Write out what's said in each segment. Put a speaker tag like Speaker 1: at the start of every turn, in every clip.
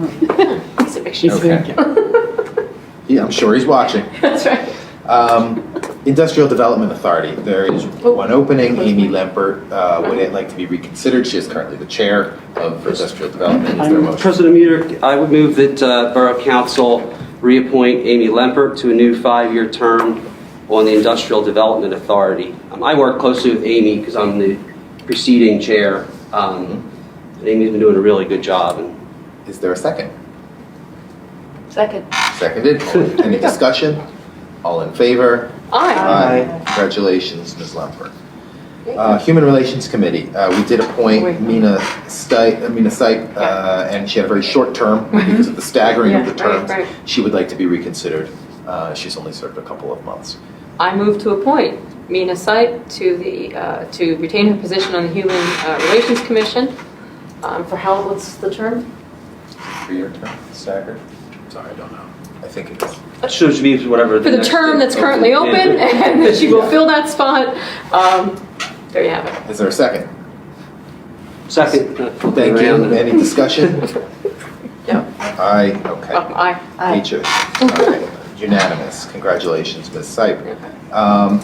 Speaker 1: He's a big shot.
Speaker 2: Okay. Yeah, I'm sure he's watching.
Speaker 1: That's right.
Speaker 2: Um, Industrial Development Authority, there is
Speaker 1: Oh,
Speaker 2: one opening, Amy Lempert uh, would it like to be reconsidered, she is currently the chair of Industrial Development, is there a motion?
Speaker 3: President Mueller, I would move that uh, Borough Council reappoint Amy Lempert to a new five-year term on the Industrial Development Authority. Um, I work closely with Amy because I'm the preceding chair. um, and Amy's been doing a really good job. and
Speaker 2: Is there a second?
Speaker 1: Second.
Speaker 2: Seconded, any discussion? All in favor?
Speaker 1: Aye.
Speaker 2: Aye. Congratulations, Ms. Lempert. Uh, Human Relations Committee, uh, we did appoint
Speaker 1: Wait.
Speaker 2: Mina Stite, Mina Syke, uh, and she had a very short term because of the staggering of
Speaker 1: Yeah,
Speaker 2: the
Speaker 1: right,
Speaker 2: terms.
Speaker 1: right.
Speaker 2: She would like to be reconsidered, Uh, she's only served a couple of months.
Speaker 1: I move to appoint Mina Sight to the, uh, to retain her position on the Human uh, Relations Commission. Um, For how, what's the term?
Speaker 2: Three-year term, staggered? Sorry, I don't know. I think it is.
Speaker 3: So it should be whatever.
Speaker 1: For the
Speaker 3: next-
Speaker 1: term that's currently
Speaker 3: Yeah.
Speaker 1: open, and that she will fill that spot. Um, There you have it.
Speaker 2: Is there a second?
Speaker 3: Second.
Speaker 2: Thank you. Any discussion?
Speaker 1: No.
Speaker 2: Aye, okay.
Speaker 1: Um, Aye.
Speaker 2: Aye. Unanimous. Congratulations, Ms. Sype. Um,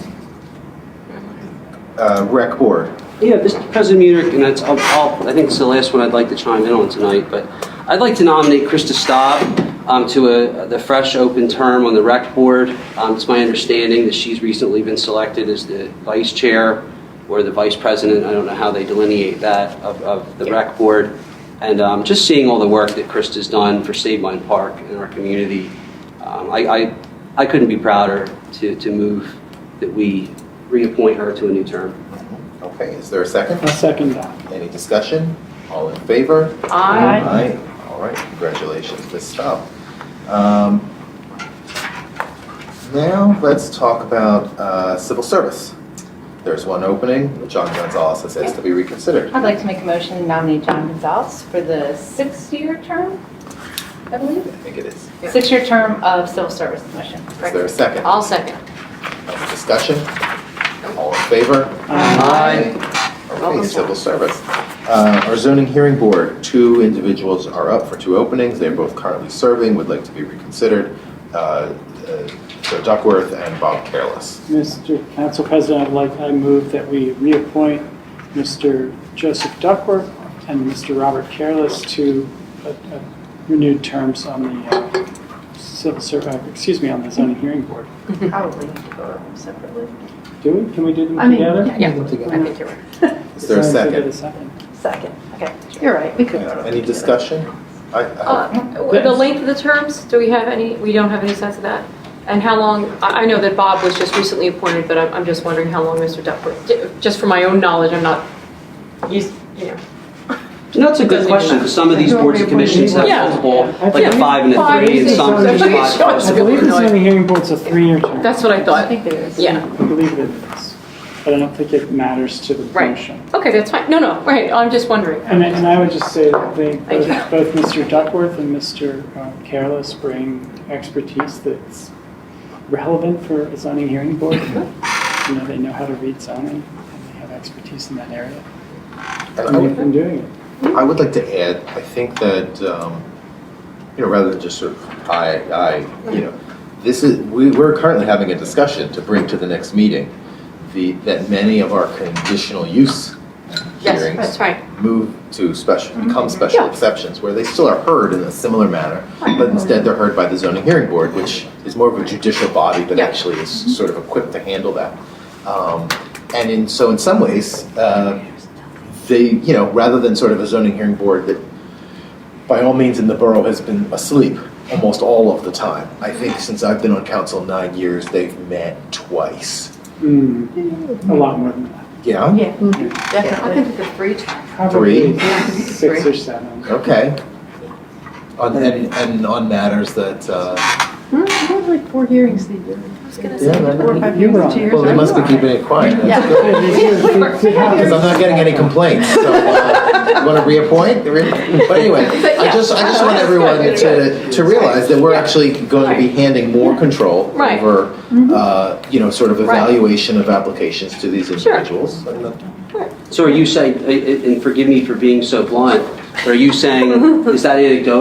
Speaker 2: uh, Rec Board,
Speaker 3: Yeah, Mr. President Munich, and that's, I'll- I'll- I think it's the last one I'd like to chime in on tonight, but I'd like to nominate Krista Staub um, to a, the fresh open term on the rec board. Um, It's my understanding that she's recently been selected as the vice chair or the vice president, I don't know how they delineate that, of, of the rec board. And um, just seeing all the work that Krista's done for Save Mine Park and our community, um, I, I, I couldn't be prouder to, to move that we reappoint her to a new term.
Speaker 2: okay, is there a second?
Speaker 4: I'll second that.
Speaker 2: Any discussion? All in favor?
Speaker 1: Aye.
Speaker 2: Aye. All right, congratulations, Ms. Staub. Um, Now, let's talk about uh, civil service. There's one opening, John Gonzalez has asked to be reconsidered.
Speaker 5: I'd like to make a motion to nominate John Gonzalez for the six-year term, I
Speaker 2: I
Speaker 5: believe.
Speaker 2: think it is. Is
Speaker 5: Six-year term of Civil Service Commission.
Speaker 2: there a second?
Speaker 1: I'll second.
Speaker 2: Any discussion? All in favor? Okay,
Speaker 1: Welcome,
Speaker 2: civil service. Uh, Our zoning hearing board, two individuals are up for two openings. They're both currently serving, would like to be reconsidered. Uh, uh, Joe Duckworth and Bob Careless.
Speaker 4: Mr. Council President, I'd like, I move that we reappoint Mr. Joseph Duckworth and Mr. Robert Careless to uh, uh, renewed terms on the uh, civil ser, uh, excuse me, on the zoning hearing board.
Speaker 5: Probably need to vote on them separately.
Speaker 4: Do we, can we do them
Speaker 5: I mean,
Speaker 4: together?
Speaker 5: yeah,
Speaker 1: I think you're right.
Speaker 2: Is there a
Speaker 4: Someone give it
Speaker 2: second?
Speaker 4: a second.
Speaker 5: second, okay. You're right, we could.
Speaker 2: Uh, Any discussion? I- I-
Speaker 1: Uh, The length of the terms, do we have any, we don't have any sense of that? And how long, I I know that Bob was just recently appointed, but I'm I'm just wondering how long Mr. Duckworth, j- just for my own knowledge, I'm not, used- you know.
Speaker 3: No, that's a good
Speaker 1: Doesn't
Speaker 3: question,
Speaker 1: even-
Speaker 3: because some of these
Speaker 4: Yeah.
Speaker 3: boards and commissions have
Speaker 1: Yeah.
Speaker 3: multiple,
Speaker 4: I
Speaker 3: like
Speaker 4: think-
Speaker 3: a five and a
Speaker 1: Five,
Speaker 3: three, and
Speaker 1: six,
Speaker 3: some
Speaker 4: seven,
Speaker 3: just
Speaker 4: eight,
Speaker 3: five.
Speaker 4: I believe the zoning hearing board's a three-year term.
Speaker 1: That's what I
Speaker 5: I
Speaker 1: thought.
Speaker 5: think there is.
Speaker 1: Yeah,
Speaker 4: I believe it is, but I don't think it matters to the
Speaker 1: Right.
Speaker 4: motion.
Speaker 1: okay, that's fine, no, no, right, I'm just wondering.
Speaker 4: And I, and I would just say that they,
Speaker 1: Thank
Speaker 4: both, both Mr. Duckworth and Mr. um, Careless bring expertise that's relevant for a zoning hearing board. You know, they know how to read zoning, and they have expertise in that area,
Speaker 2: I
Speaker 4: and
Speaker 2: would-
Speaker 4: they've been doing it.
Speaker 2: I would like to add, I think that, um, you know, rather than just sort of, I, I, you know, this is, we, we're currently having a discussion to bring to the next meeting, the, that many of our conditional use
Speaker 1: Yes,
Speaker 2: hearings
Speaker 1: that's right,
Speaker 2: move to special, become special
Speaker 1: Mm-hmm. Yeah.
Speaker 2: exceptions, where they still are heard in a similar manner, but instead they're heard by the zoning hearing board, which is more of a judicial body that
Speaker 1: Yeah. Mm-hmm.
Speaker 2: actually is sort of equipped to handle that. Um, And in, so in some ways, uh, they, you know, rather than sort of a zoning hearing board that by all means in the borough has been asleep almost all of the time. I think since I've been on council nine years, they've met twice.
Speaker 4: Mm, a lot more than that,
Speaker 2: Yeah?
Speaker 5: Yeah, Mm-hmm.
Speaker 1: I've
Speaker 5: definitely.
Speaker 1: been to the three times.
Speaker 4: probably
Speaker 2: Three?
Speaker 4: six or seven.
Speaker 2: Okay. On, and, and on matters that, uh,
Speaker 5: Hmm, like four hearings they do.
Speaker 1: I was gonna
Speaker 2: Yeah,
Speaker 1: say,
Speaker 2: that-
Speaker 5: Four or five
Speaker 4: You were
Speaker 5: hearings,
Speaker 4: on
Speaker 5: two
Speaker 4: it.
Speaker 5: years.
Speaker 2: well, they
Speaker 5: ago.
Speaker 2: must be keeping it quiet.
Speaker 5: Yeah.
Speaker 4: Yeah, they do- they- they have-
Speaker 2: Because I'm not getting any complaints, so, uh, you wanna reappoint? But anyway, I just, I just want everyone to, to realize that we're actually going to be handing more control
Speaker 1: Right.
Speaker 5: Mm-hmm.
Speaker 2: over, uh, you know, sort of
Speaker 1: Right.
Speaker 2: evaluation of applications to these
Speaker 1: Sure.
Speaker 2: individuals. And that-
Speaker 3: So are you saying, and forgive me for being so blunt, but are you saying, is that anecdotal